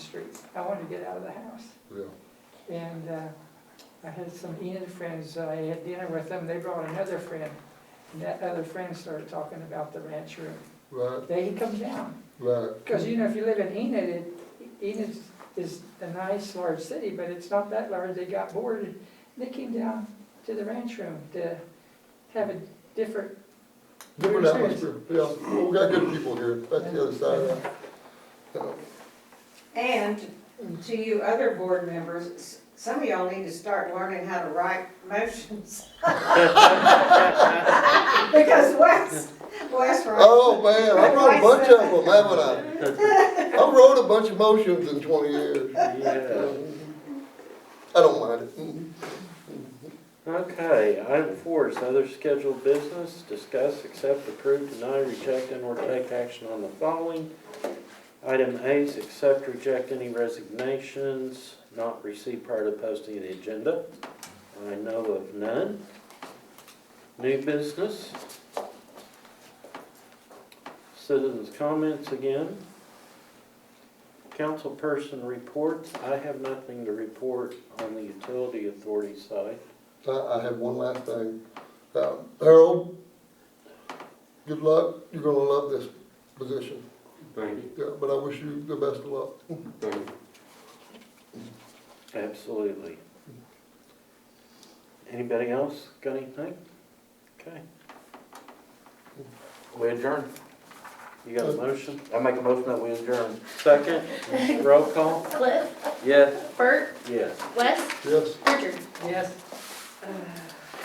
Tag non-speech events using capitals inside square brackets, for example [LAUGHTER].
streets. I wanted to get out of the house. Yeah, And uh, I had some Enid friends, uh, I had dinner with them, they brought another friend. And that other friend started talking about the ranch room. right, Then he comes down, right, because you know, if you live in Enid, it- Enid is a nice large city, but it's not that large, they got bored. and They came down to the ranch room to have a different, different atmosphere, yeah, Well, we got good people here, that's the other side of that. Yeah. And to you other board members, s- some of y'all need to start learning how to write [LAUGHS] motions. Because Wes, Wes writes. Oh, man, I wrote a bunch of them, haven't I? I wrote a bunch of motions in twenty years, Yeah, I don't mind it. Mm-hmm. okay, item four is other scheduled business, discuss, accept, approve, deny, reject, and or take action on the following. Item A is accept, reject any resignations not received prior to posting of the agenda. I know of none. New business. Citizens' comments again. Councilperson reports, I have nothing to report on the utility authority side. I, I have one last thing. Uh, Harold, good luck, you're gonna love this position, Thank you. yeah, but I wish you the best of luck. Absolutely. Anybody else got anything? Okay. We adjourn. You got a motion? I make a motion that we adjourn. Second, roll call? Cliff, Yes. Bert, Yes. Wes, Yes? Richard. yes, Uh,